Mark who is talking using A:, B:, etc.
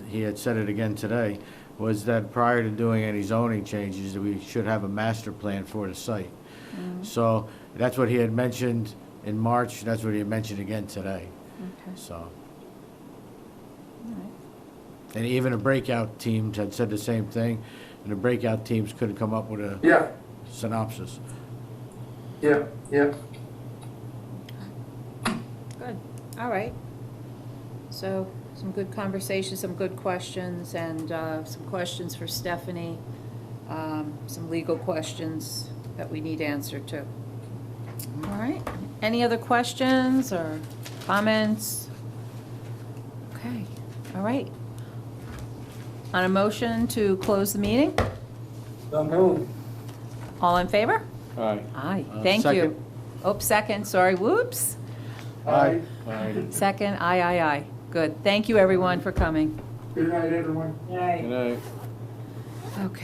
A: he had said it again today, was that prior to doing any zoning changes, that we should have a master plan for the site.
B: Mm-hmm.
A: So that's what he had mentioned in March, that's what he had mentioned again today,
B: Okay,
A: so.
B: all right.
A: And even the breakout teams had said the same thing, and the breakout teams couldn't come up with a
C: Yeah,
A: synopsis.
C: yeah, yeah.
B: Good, all right. So, some good conversations, some good questions, and uh, some questions for Stephanie, um, some legal questions that we need answered to. All right, any other questions or comments? Okay, all right. On a motion to close the meeting,
C: So moved.
B: all in favor?
D: Aye.
B: Aye,
A: Uh,
B: thank you.
A: second.
B: Oh, second, sorry, whoops.
C: Aye.
D: Aye.
B: Second, aye, aye, aye. Good. Thank you, everyone, for coming.
C: Good night, everyone.
D: Good night.
B: Okay.